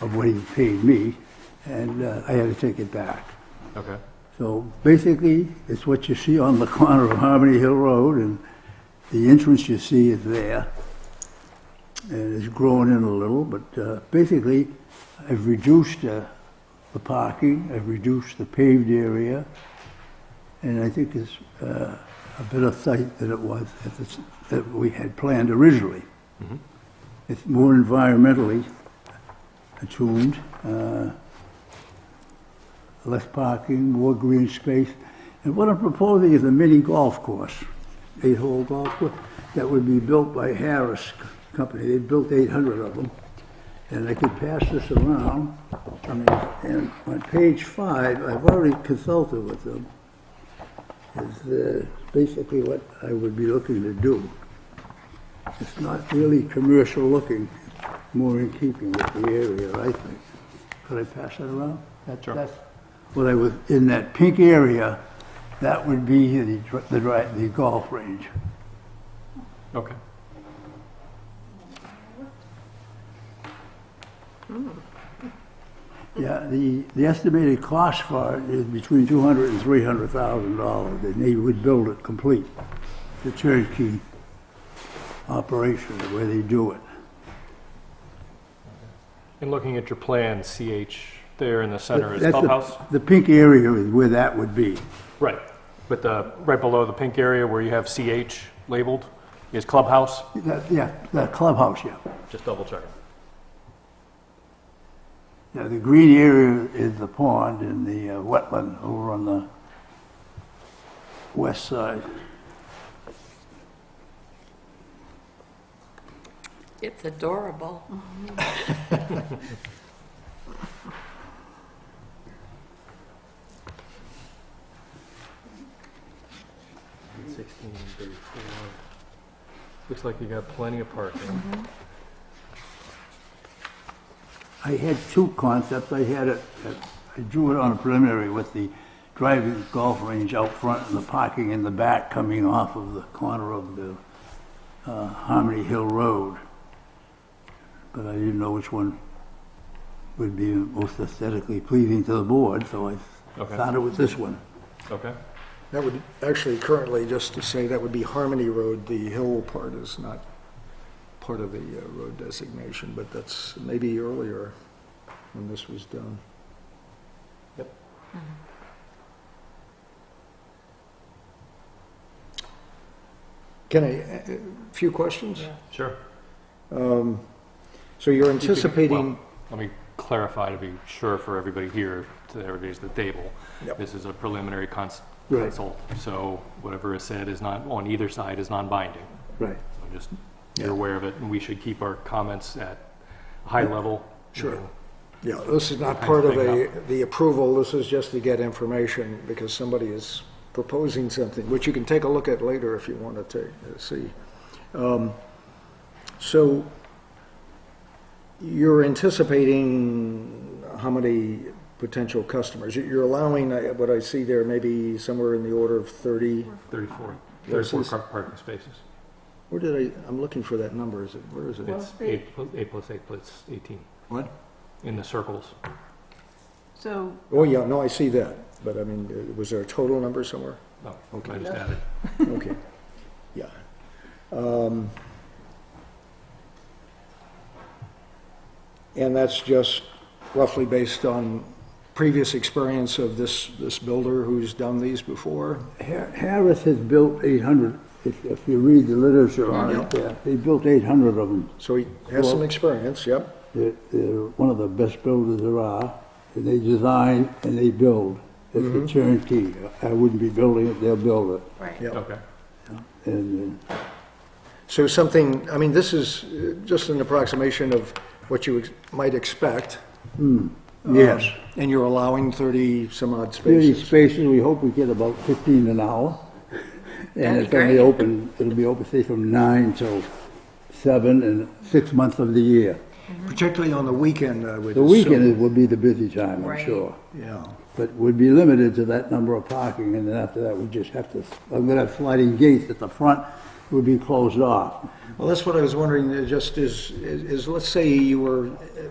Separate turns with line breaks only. of what he paid me, and uh, I had to take it back.
Okay.
So basically, it's what you see on the corner of Harmony Hill Road, and the entrance you see is there. And it's grown in a little, but uh, basically, I've reduced uh, the parking, I've reduced the paved area, and I think it's uh, a better site than it was at the s- that we had planned originally. It's more environmentally attuned. uh, less parking, more green space. And what I'm proposing is a mini golf course, eight-hole golf course, that would be built by Harris Company. They built 800 of them. And I could pass this around. I mean, And on page five, I've already consulted with them. Is uh, basically what I would be looking to do. It's not really commercial looking, more in keeping with the area, I think. Could I pass that around? That-
Sure.
That's what I was, in that pink area, that would be the, dr- the dri- the golf range.
Okay.
Yeah, the, the estimated cost for it is between two hundred and three hundred thousand dollars, and they would build it complete. The turnkey operation, the way they do it.
And looking at your plan, CH there in the center is
That's the-
clubhouse?
The pink area is where that would be.
Right. But the, right below the pink area where you have CH labeled is clubhouse?
That- Yeah, the clubhouse, yeah.
Just double checking.
Yeah, the green area is the pond and the uh, wetland over on the west side.
It's adorable.
Sixteen thirty-four. Mm-hmm. Looks like you got plenty of parking.
I had two concepts. I had it, I drew it on a preliminary with the driving golf range out front and the parking in the back coming off of the corner of the uh, Harmony Hill Road. But I didn't know which one would be most aesthetically pleasing to the board, so I
Okay.
started with this one.
Okay.
That would, actually, currently, just to say, that would be Harmony Road. The hill part is not part of the uh, road designation, but that's maybe earlier when this was done.
Yep.
Can I, a few questions?
Sure.
So you're
You could-
anticipating,
well, Let me clarify to be sure for everybody here, to everybody's at the table.
Yep.
This is a preliminary cons-
Right.
consult, so whatever is said is not, on either side is non-binding.
Right.
So Just, you're aware of it, and we should keep our comments at a high level. you
Sure.
know.
yeah, this is not
I'm
part of
picking
a, the approval, this is just to get information, because somebody is proposing something, which you can take a look at later if you want to take, uh, see. Um, So you're anticipating how many potential customers? You- You're allowing, uh, what I see there, maybe somewhere in the order of 30,
34,
Yes,
34
it's-
car- parking spaces.
where did I, I'm looking for that number, is it, where is it?
It's eight, pl- eight plus eight plus 18,
What?
in the circles.
So,
Oh, yeah, no, I see that, but I mean, uh, was there a total number somewhere?
No, I
Okay.
just added.
Okay, yeah. Um, And that's just roughly based on previous experience of this, this builder who's done these before?
Har- Harris has built 800, if, if you read the literature on it, yeah, they built 800 of them.
So he has some experience, yep.
They're, they're one of the best builders there are, and they design and they build. It's
Mm-hmm.
a turnkey. I wouldn't be building it, they'll build it.
right.
Yeah.
Okay.
And uh,
So something, I mean, this is uh, just an approximation of what you ex- might expect. um,
yes,
And you're allowing 30 some odd
thirty
spaces.
spaces, we hope we get about fifteen an hour. And
That'd
it's
be
gonna be
great.
open, it'll be open, say, from nine till seven and six months of the year.
Particularly on the weekend, I would
The
assume.
weekend is- will be the busy time, I'm
Right.
sure.
Yeah.
But would be limited to that number of parking, and then after that, we just have to, I'm gonna have sliding gates at the front, would be closed off.
Well, that's what I was wondering, uh, just is, is, is let's say you were uh,